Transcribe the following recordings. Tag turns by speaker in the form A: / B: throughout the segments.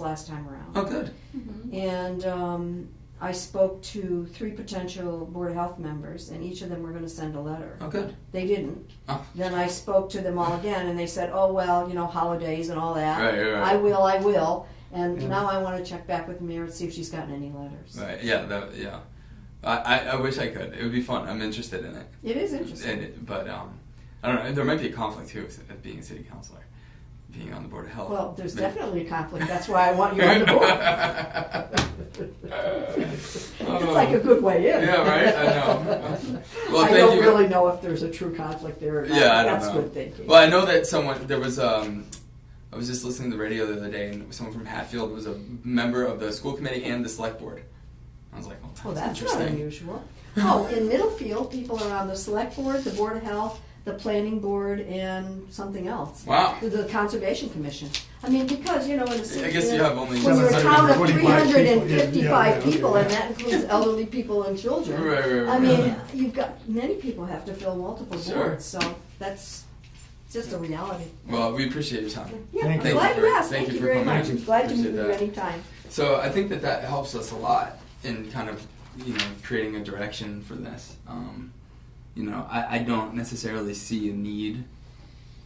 A: last time around.
B: Oh, good.
C: Mm-hmm.
A: And um, I spoke to three potential Board of Health members, and each of them were going to send a letter.
B: Oh, good.
A: They didn't.
B: Oh.
A: Then I spoke to them all again, and they said, oh, well, you know, holidays and all that.
B: Right, right, right.
A: I will, I will. And
B: Yeah.
A: now I want to check back with the mayor and see if she's gotten any letters.
B: Right. Yeah. That, yeah. I, I, I wish I could. It would be fun. I'm interested in it.
A: It is interesting.
B: And it- but um, I don't know. There might be a conflict too with with being a city councilor, being on the board of health.
A: Well, there's
B: But-
A: definitely a conflict. That's why I want you on the board. It's like a good way in.
B: Yeah, right? I know. Well,
A: I
B: thank
A: don't
B: you.
A: really know if there's a true conflict there or not.
B: Yeah, I don't
A: That's
B: know.
A: good thinking.
B: Well, I know that someone there was. Um, I was just listening to the radio the other day, and someone from Hatfield was a member of the school committee and the select board. I was like, "Oh, that's,
A: Well, that's not
B: interesting."
A: unusual. Oh, in Middlefield, people are on the select board, the board of health, the planning board, and something else.
B: Wow.
A: The- The conservation commission. I mean, because, you know, in a city.
B: I guess you have only
A: When you're a town of three
D: 745
A: hundred and
D: people, yeah, yeah,
A: fifty-five
D: okay,
A: people, and
D: yeah.
A: that includes elderly people and children.
B: Right, right, right,
A: I mean,
B: right.
A: you've got, many people have to fill multiple
B: Sure.
A: boards, so that's just a reality.
B: Well, we appreciate your time.
A: Yeah,
D: Thank
A: I'm
D: you.
A: glad
B: Thank you
A: you
B: for-
A: asked.
B: thank
A: Thank
B: you
A: you
B: for
A: very
B: coming
A: much.
B: in.
A: I'm glad to meet
B: Appreciate
A: you
B: that.
A: anytime.
B: So I think that that helps us a lot in kind of you know creating a direction for this. Um, you know, I, I don't necessarily see a need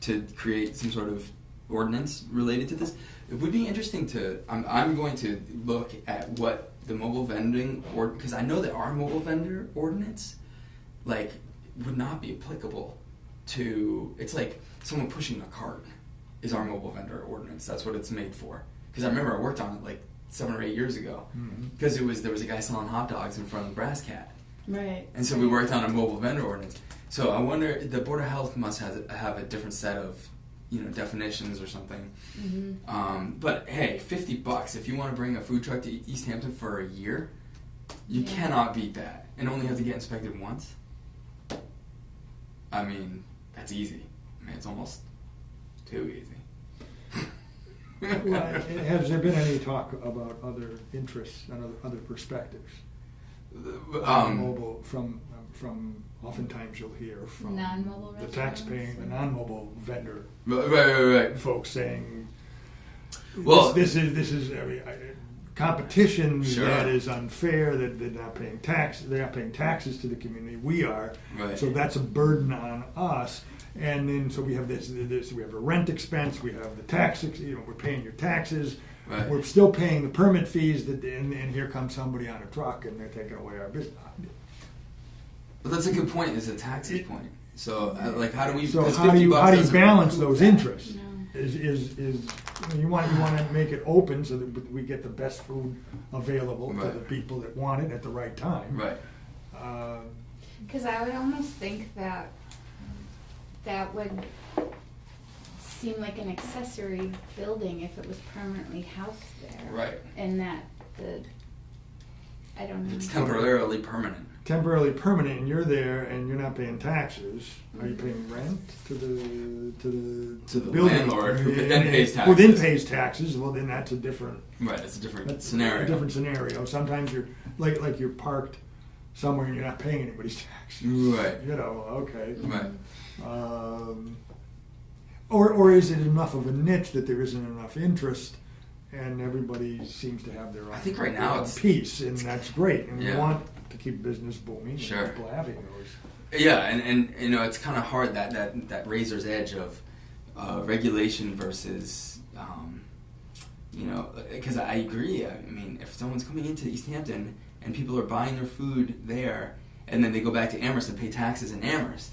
B: to create some sort of ordinance related to this. It would be interesting to. I'm, I'm going to look at what the mobile vending or because I know that our mobile vendor ordinance like would not be applicable to it's like someone pushing a cart is our mobile vendor ordinance that's what it's made for because i remember i worked on it like seven or eight years ago because it was there was a guy selling hot dogs in front of the brass cat
E: Right.
B: and so we worked on a mobile vendor ordinance so i wonder the board of health must has, have a different set of you know definitions or something
C: Mm-hmm.
B: um, but hey 50 bucks if you want to bring a food truck to E- east hampton for a year you
E: Yeah.
B: cannot beat that and only have to get inspected once I mean, that's easy. I mean, it's almost too easy.
D: Well, Has there been any talk about other interests and other- other perspectives?
B: um,
D: Mobile, from, from, oftentimes you'll hear from.
E: Non-mobile
D: The
E: restaurants
D: taxpaying, the
E: and-
D: non-mobile vendor
B: right, right, right, right.
D: folks saying,
B: Well-
D: this, this is, this is, I mean, I- competition
B: Sure.
D: that is unfair, that they're not paying tax, they're not paying taxes to the community, we are.
B: Right.
D: So that's a burden on us. And then, so we have this, this, we have a rent expense, we have the tax, ex- you know, we're paying your taxes.
B: Right.
D: We're still paying the permit fees that, and, and here comes somebody on a truck and they're taking away our business.
B: But that's a good point. Is a taxes point. So, uh, like, how do we?
D: So
B: because
D: how do
B: 50
D: you,
B: bucks
D: how do you
B: doesn't-
D: balance those interests?
E: No.
D: Is, is, is, I mean, you want, you wanna make it open so that we get the best food available to
B: Right.
D: the people that want it at the right time.
B: Right.
D: Uh,
C: Because I would almost think that that would seem like an accessory building if it was permanently housed there.
B: Right.
C: And that the, I don't know.
B: It's temporarily permanent.
D: Temporarily permanent, and you're there and you're not paying taxes, are you paying rent to the, to the?
B: To the
D: building?
B: landlord who then pays
D: Who then
B: taxes.
D: pays taxes, well, then that's a different,
B: Right. It's a different
D: That's
B: scenario.
D: A different scenario. Sometimes you're like like you're parked somewhere and you're not paying anybody's taxes.
B: Right.
D: You know. Okay.
C: Mm-hmm.
B: Right.
D: Um, or or is it enough of a niche that there isn't enough interest, and everybody seems to have their own.
B: I think right
D: their
B: now
D: own
B: it's-
D: piece, and that's great. And
B: Yeah.
D: we want to keep business booming.
B: Sure.
D: And people having those.
B: Yeah, and, and you know it's kind of hard that that that razor's edge of uh, regulation versus um, you know because I agree. I mean, if someone's coming into East Hampton and people are buying their food there, and then they go back to Amherst and pay taxes in Amherst,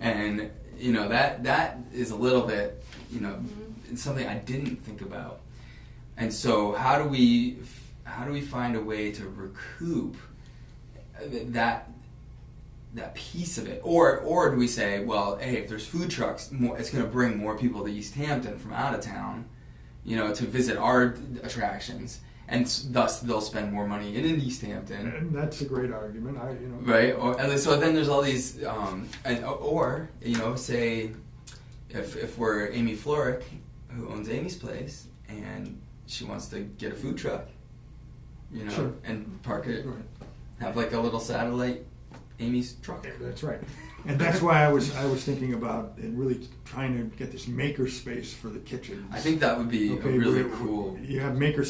B: and you know that that is a little bit you know it's something I didn't think about. And so how do we how do we find a way to recoup that that piece of it, or or do we say, well, hey, if there's food trucks, more, it's going to bring more people to East Hampton from out of town, you know, to visit our attractions, and s- thus they'll spend more money in, in East Hampton,
D: And that's a great argument. I you know.
B: right? Or and so then there's all these, um, and or you know, say if if we're Amy Florick, who owns Amy's place, and she wants to get a food truck, you know,
D: Sure.
B: and park it,
D: Right.
B: have like a little satellite Amy's truck.
D: That's right. And that's why I was I was thinking about and really trying to get this maker space for the kitchen.
B: I think that would be a really
D: where-
B: cool
D: You have maker